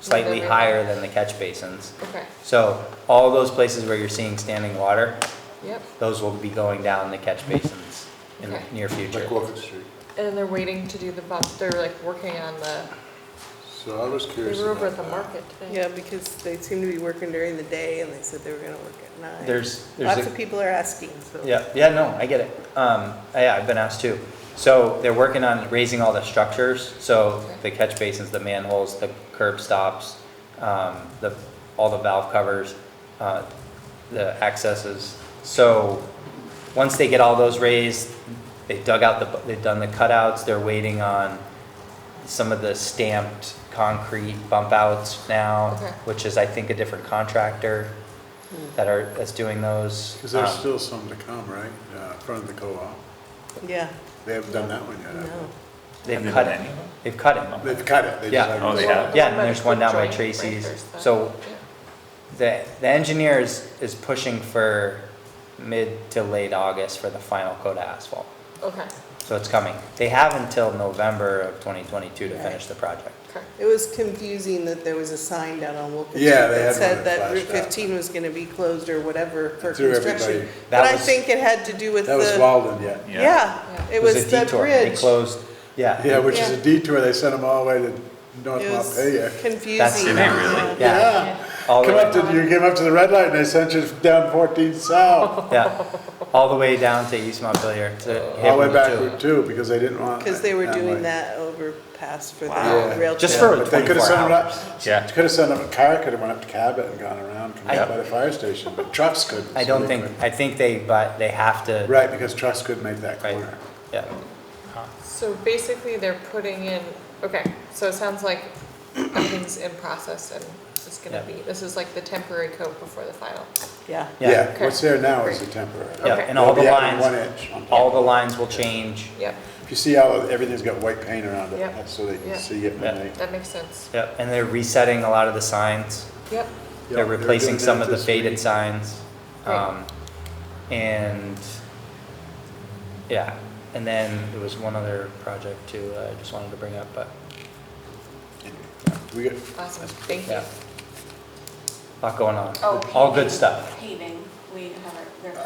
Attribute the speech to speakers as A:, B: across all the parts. A: slightly
B: November.
A: higher than the catch basins.
B: Okay,
A: So all those places where you're seeing standing water,
B: yep.
A: those will be going down the catch basins in the
B: Okay.
A: near future.
C: Like Walcott Street.
B: And they're waiting to do the, pop. they're like working on the,
C: So I was curious.
B: they were over at
C: about
B: the
C: that.
B: market today.
D: Yeah, because they seem to be working during the day and they said they were gonna work at nine.
A: There's, there's
D: Lots of
A: a,
D: people are asking, so.
A: yeah, yeah, no, I get it. Um, yeah, I've been asked too. So they're working on raising all the structures, so
B: Okay.
A: the catch basins, the manholes, the curb stops, um, the, all the valve covers, uh, the accesses. So, once they get all those raised, they dug out the, they've done the cutouts, they're waiting on some of the stamped concrete bump outs now,
B: Okay. Hmm.
A: which is, I think, a different contractor that are, that's doing those.
C: Because there's
A: Um,
C: still some to come, right? Uh, in front of the co-op.
D: Yeah,
C: They haven't done that one yet. have
D: no.
A: They've
E: Have
A: cut
E: they
A: it,
E: done any?
A: they've cut it.
C: they? They've cut it. They just
A: Yeah.
C: haven't-
E: Oh, they have?
A: Yeah, and
B: Like
A: there's one
B: the
A: down by
B: joint, right,
A: Tracy's.
B: there's the-
A: So-
B: yeah.
A: The, the engineer is, is pushing for mid to late August for the final coat of asphalt.
B: Okay,
A: So it's coming. They have until November of 2022 to
D: Right.
A: finish the project.
B: okay.
D: It was confusing that there was a sign down on Wilkins Street
C: Yeah, they
D: that
C: had one
D: said
C: that
D: that Route
C: flashed out.
D: fifteen was gonna be closed or whatever for
C: Threw
D: construction.
C: everybody-
A: That
D: But I
A: was-
D: think it had to do with
C: That was
D: the,
C: Walden yet.
D: yeah, it
A: It was
D: was
A: a
D: the
A: detour. They
D: bridge.
A: closed, yeah.
C: Yeah, which is
B: Yeah.
C: a detour. They sent them all the way to North
D: It was
C: Montpelier.
D: confusing. Uh-huh.
E: Did they really?
A: Yeah. All the
C: Come
A: way
C: up to, you came up to the red light and they sent you down 14 south,
A: Yeah, all the way down to East Montpelier to.
C: Uh, all the way
A: Haverhill
C: back
A: too.
C: Route 2, because they didn't want.
D: Because they were
C: it
D: doing
C: way.
D: that overpass for
E: Wow.
D: the rail trail.
A: Just for
C: But they could
A: 24
C: have sent them
A: hours.
C: up,
E: Yeah.
C: could have sent them, a car could have went up to Cabot and gone around, come
A: I-
C: up by the fire station, but trucks couldn't.
A: I
C: so
A: don't
C: they
A: think,
C: couldn't.
A: I think they, but they have to,
C: Right, because trucks couldn't make that
A: Right.
C: corner.
A: yeah.
B: So basically, they're putting in, okay, so it sounds like everything's in process and it's gonna be,
A: Yeah.
B: this is like the temporary coat before the final.
D: Yeah.
A: Yeah.
C: Yeah,
B: Okay.
C: what's there now is a temporary.
A: Yeah,
B: Okay.
A: and all the
C: They'll be adding
A: lines,
C: One inch. on top.
A: all the lines will change.
B: Yep,
C: If you see how everything's got white paint around it,
B: Yep.
C: that's so they
B: Yeah.
C: can see it
A: Yeah.
C: when they.
B: that makes sense.
A: Yep, and they're resetting a lot of the signs.
B: Yep,
A: They're
C: doing
A: replacing
C: that
A: some of the
C: this week.
A: faded signs.
B: Great.
A: Um, And, yeah, and then there was one other project too, that I just wanted to bring up, but,
C: We got,
B: awesome, thank you.
A: yeah. Lot going on.
F: Oh,
A: All
F: paving.
A: good stuff.
F: Paving, we have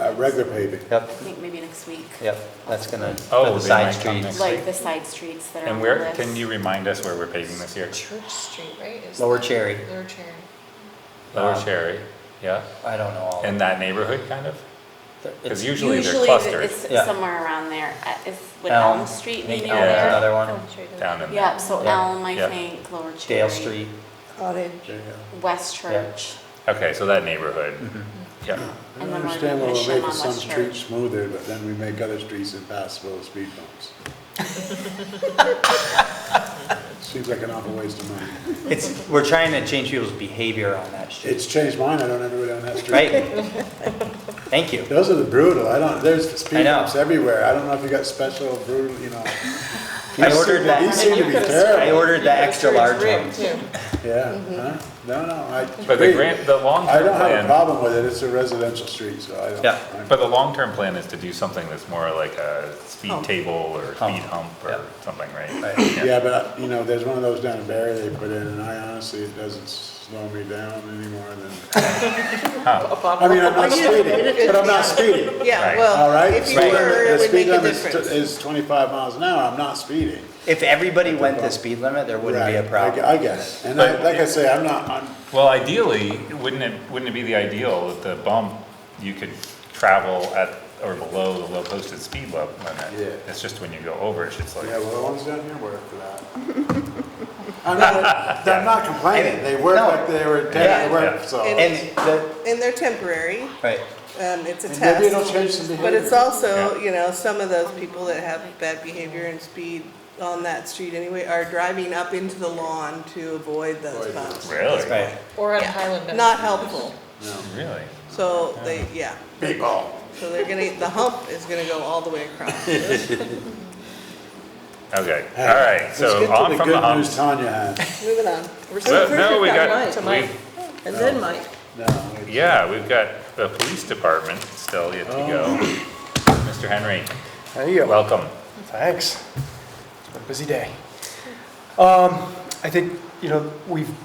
F: our.
C: uh, regular paving.
A: Yep,
F: I think maybe next week,
A: yep, that's gonna, for
E: Oh,
A: the
E: they
A: side
E: might come
A: streets.
E: next-
F: like the side streets that are on
E: And
F: the
E: where,
F: list.
E: can you remind us where we're paving this year?
B: Church Street, right? is
A: Lower
B: that-
A: Cherry.
B: Lower Cherry.
E: Lower
A: Um,
E: Cherry, yeah,
A: I don't know all.
E: in that neighborhood, kind of?
A: It's-
E: Because usually they're
F: Usually
E: clustered
F: it's
A: Yeah.
F: somewhere around there, Uh, is, would
A: Elm.
F: Elm Street
A: Nate
F: maybe
A: Elm's
E: Elm. Yeah.
F: there?
A: another one,
E: down in
F: Yeah, so
A: Yeah.
F: Elm, I
E: Yeah.
F: think, Lower Cherry.
A: Dale Street.
D: Cottage.
C: Yeah.
F: West Church,
E: Okay, so that neighborhood,
F: Mm-hmm.
C: I
E: yeah.
F: and
C: don't
F: then we're
C: understand why
F: gonna push
C: we're
F: them
C: making
F: on
C: some
F: West
C: streets
F: Church.
C: smoother, but then we make other streets impassable with speed bumps. Seems like an awful waste of money.
A: It's, we're trying to change people's behavior on that street,
C: It's changed mine, I don't ever go down that street.
A: right? Thank you.
C: Those are the brutal, I don't, there's
A: I
C: speed
A: know.
C: bumps everywhere, I don't know if you got special brutal, you know.
A: I
C: These
A: ordered
C: seem-
A: that-
C: These seem to be
A: I
C: terrible,
A: ordered the extra large one.
B: Church Rib, too.
C: yeah, huh?
A: Mm-hmm.
C: No, no, I.
E: But the grant, the
C: I
E: long-term
C: don't have a
E: plan,
C: problem with it, it's a residential street, so I don't.
A: Yeah.
C: I'm-
E: but the long-term plan is to do something that's more like a speed
D: Hump.
E: table or
A: Hump.
E: speed hump
A: Yeah.
E: or something, right?
C: Right, Yeah, but, you know, there's one of those down in Barry they put in, and I honestly, it doesn't slow me down anymore than, I mean, I'm not speeding, but I'm not speeding,
D: Yeah,
E: Right.
C: all
D: well,
C: right?
D: if you
C: Speed
D: were,
C: limit-
D: it
C: the
D: would
C: speed
D: make a
C: limit is-
D: difference.
C: Is twenty-five miles an hour, I'm not speeding.
A: If everybody went the speed limit, there wouldn't be a
C: Right, I
A: problem.
C: ge- I guess, and I,
E: But-
C: like I say, I'm not, I'm,
E: Well, ideally, wouldn't it, wouldn't it be the ideal that the bump, you could travel at or below the low posted speed level limit?
C: Yeah.
E: It's just when you go over, it's just
C: Oh, yeah,
E: like,
C: well, the ones down here work for that. I'm not, I'm not complaining, they work
A: No.
C: like they were
A: Yeah.
C: intended to work,
E: Yeah.
C: so.
D: And-
A: And the,
D: And they're temporary,
A: right,
D: um, it's a
C: And
D: test.
C: Maybe it'll change some behavior.
D: But it's also,
E: Yeah.
D: you know, some of those people that have bad behavior and speed on that street anyway are driving up into the lawn to avoid those
C: Avoid those.
D: bumps.
E: really?
A: right.
B: Or on
D: Yeah.
B: Highland. Avenue.
D: Not helpful.
C: No.
E: Really?
D: So they, yeah,
C: Big ball.
D: so they're gonna, the hump is gonna go all the way across.
E: Okay, all right,
C: Let's get
E: so
C: to
E: on from
C: good
E: the
C: news
E: humps.
C: Tanya had.
D: Moving on.
B: We're still
E: Well, no, we
B: perfect
E: got,
B: on
E: we,
B: Mike.
D: And then Mike.
C: No, it's-
E: yeah, we've got the police department still yet to go.
C: Oh.
E: Mr. Henry,
G: There you go.
E: welcome.
G: Thanks. It's been a busy day. Um, I think, you know, we've